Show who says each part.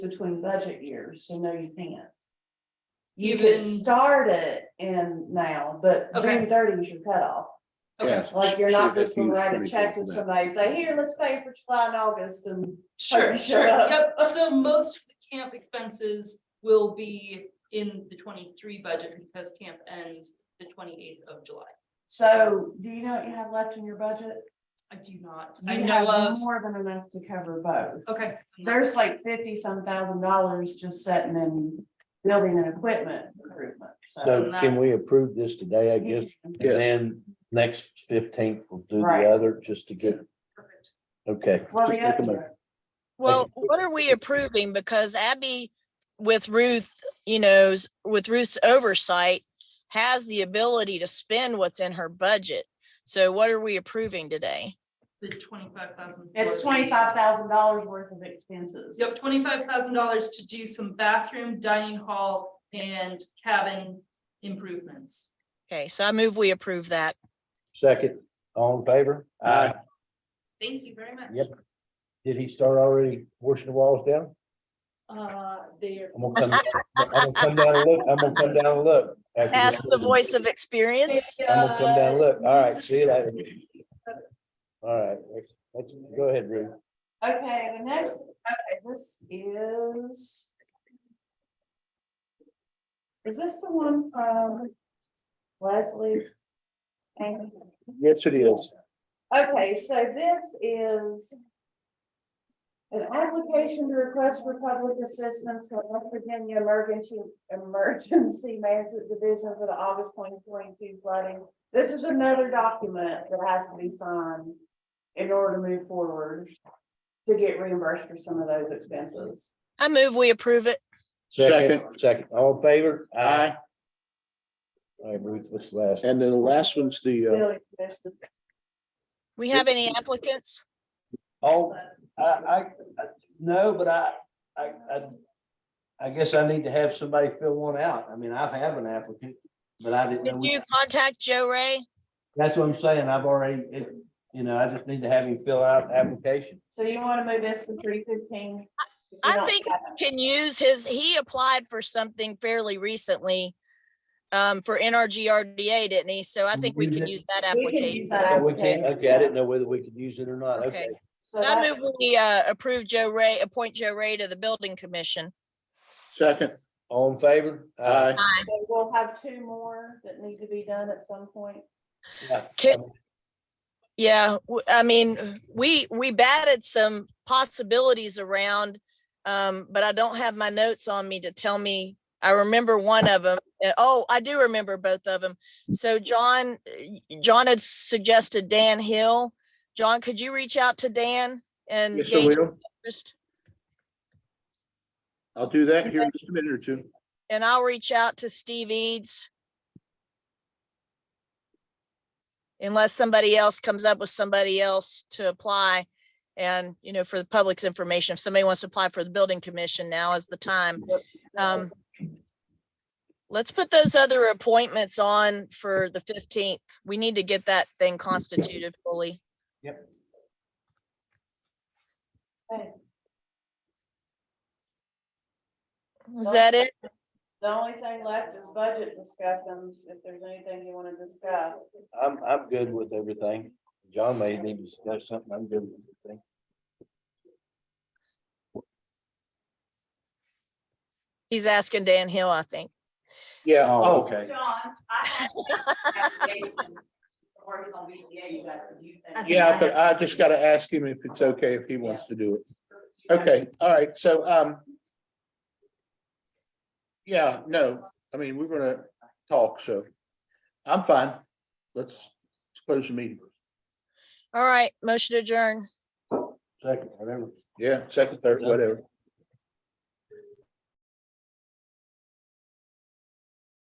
Speaker 1: between budget years, so no, you can't.
Speaker 2: You
Speaker 1: You
Speaker 2: can-
Speaker 1: could start it in now, but
Speaker 2: Okay.
Speaker 1: June thirty is your cutoff.
Speaker 2: Okay,
Speaker 3: Yeah.
Speaker 1: Like, you're not just gonna
Speaker 3: Huge
Speaker 1: write a
Speaker 3: committee
Speaker 1: check to
Speaker 3: for that.
Speaker 1: somebody and say, here, let's pay for July and August and.
Speaker 2: sure,
Speaker 1: Shut
Speaker 2: sure,
Speaker 1: up.
Speaker 2: yep, so most of the camp expenses will be in the twenty-three budget because camp ends the twenty-eighth of July.
Speaker 1: So, do you know what you have left in your budget?
Speaker 2: I do not, I
Speaker 1: You
Speaker 2: know
Speaker 1: have
Speaker 2: of,
Speaker 1: more than enough to cover both.
Speaker 2: okay.
Speaker 1: There's like fifty some thousand dollars just sitting in building and equipment improvement, so.
Speaker 4: So can we approve this today, I guess,
Speaker 3: Yes.
Speaker 4: and then next fifteenth we'll do
Speaker 1: Right.
Speaker 4: the other, just to get,
Speaker 2: Perfect.
Speaker 4: okay.
Speaker 1: Well,
Speaker 3: Just
Speaker 1: the
Speaker 3: make a
Speaker 1: other-
Speaker 3: motion.
Speaker 5: Well, what are we approving? Because Abby, with Ruth, you know, s- with Ruth's oversight, has the ability to spend what's in her budget. So what are we approving today?
Speaker 2: The twenty-five thousand.
Speaker 1: It's twenty-five thousand dollars worth of expenses.
Speaker 2: Yep, twenty-five thousand dollars to do some bathroom, dining hall, and cabin improvements.
Speaker 5: Okay, so I move we approve that.
Speaker 4: Second, all in favor?
Speaker 3: Aye.
Speaker 2: Thank you very much.
Speaker 4: Yep. Did he start already washing the walls down?
Speaker 2: Uh, there,
Speaker 4: I'm gonna come, I'm gonna come down and look, I'm gonna come down and look. after this
Speaker 5: That's the
Speaker 4: meeting.
Speaker 5: voice of experience.
Speaker 4: I'm gonna come down and look. All right, see you later. All right, let's- let's, go ahead, Ruth.
Speaker 1: Okay, the next, okay, this is. Is this the one from Leslie? And,
Speaker 4: Yes, it is.
Speaker 1: okay, so this is. An application to request for public assistance from West Virginia Emergency, Emergency Management Division for the August twenty twenty-two flooding. This is another document that has to be signed in order to move forward to get reimbursed for some of those expenses.
Speaker 5: I move we approve it.
Speaker 3: Second,
Speaker 4: Second, all in favor?
Speaker 3: aye,
Speaker 4: All right, Ruth, what's the last?
Speaker 3: and then the last one's the, uh,
Speaker 1: Billing commission.
Speaker 5: We have any applicants?
Speaker 4: Oh, I, I, I- no, but I, I, I, I guess I need to have somebody fill one out. I mean, I have an applicant, but I didn't
Speaker 5: Did
Speaker 4: know. we-
Speaker 5: you contact Joe Ray?
Speaker 4: That's what I'm saying. I've already, it- you know, I just need to have him fill out an application.
Speaker 1: So you want to move this to three fifteen?
Speaker 5: I think- Can use his, he applied for something fairly recently um, for NRGRDA, didn't he? So I think we can use that
Speaker 1: We can
Speaker 5: application.
Speaker 1: use that
Speaker 4: Oh, We can't,
Speaker 1: application.
Speaker 4: okay, I didn't know whether we could use it or not. Okay.
Speaker 5: Okay.
Speaker 1: So
Speaker 5: So I
Speaker 1: that-
Speaker 5: move we uh, approve Joe Ray, appoint Joe Ray to the Building Commission.
Speaker 3: second,
Speaker 4: All in favor? Uh,
Speaker 3: aye,
Speaker 1: so We'll have two more that need to be done at some point.
Speaker 4: Yeah.
Speaker 5: Can- Yeah, w- I mean, we, we batted some possibilities around, um, but I don't have my notes on me to tell me. I remember one of them. Oh, I do remember both of them. So John, y- John had suggested Dan Hill. John, could you reach out to Dan and
Speaker 3: yes, I
Speaker 5: gauge
Speaker 3: will,
Speaker 5: interest?
Speaker 3: I'll do that here in just a minute or two.
Speaker 5: And I'll reach out to Steve Eads. Unless somebody else comes up with somebody else to apply. And, you know, for the public's information, if somebody wants to apply for the building commission, now is the time. Um, Let's put those other appointments on for the fifteenth. We need to get that thing constituted fully.
Speaker 1: Okay.
Speaker 5: Is that it?
Speaker 1: The only thing left is budget discussions, if there's anything you want to discuss.
Speaker 4: I'm, I'm good with everything. John may need to discuss something. I'm good with everything.
Speaker 5: He's asking Dan Hill, I think.
Speaker 3: Yeah,
Speaker 4: Oh,
Speaker 3: oh,
Speaker 4: okay.
Speaker 3: yeah, but I just gotta ask him if it's okay if he wants to do it. Okay, all right, so, um. Yeah, no, I mean, we're gonna talk, so I'm fine. Let's close the meeting.
Speaker 5: All right, motion to adjourn.
Speaker 4: Second, whatever.
Speaker 3: Yeah, second, third, whatever.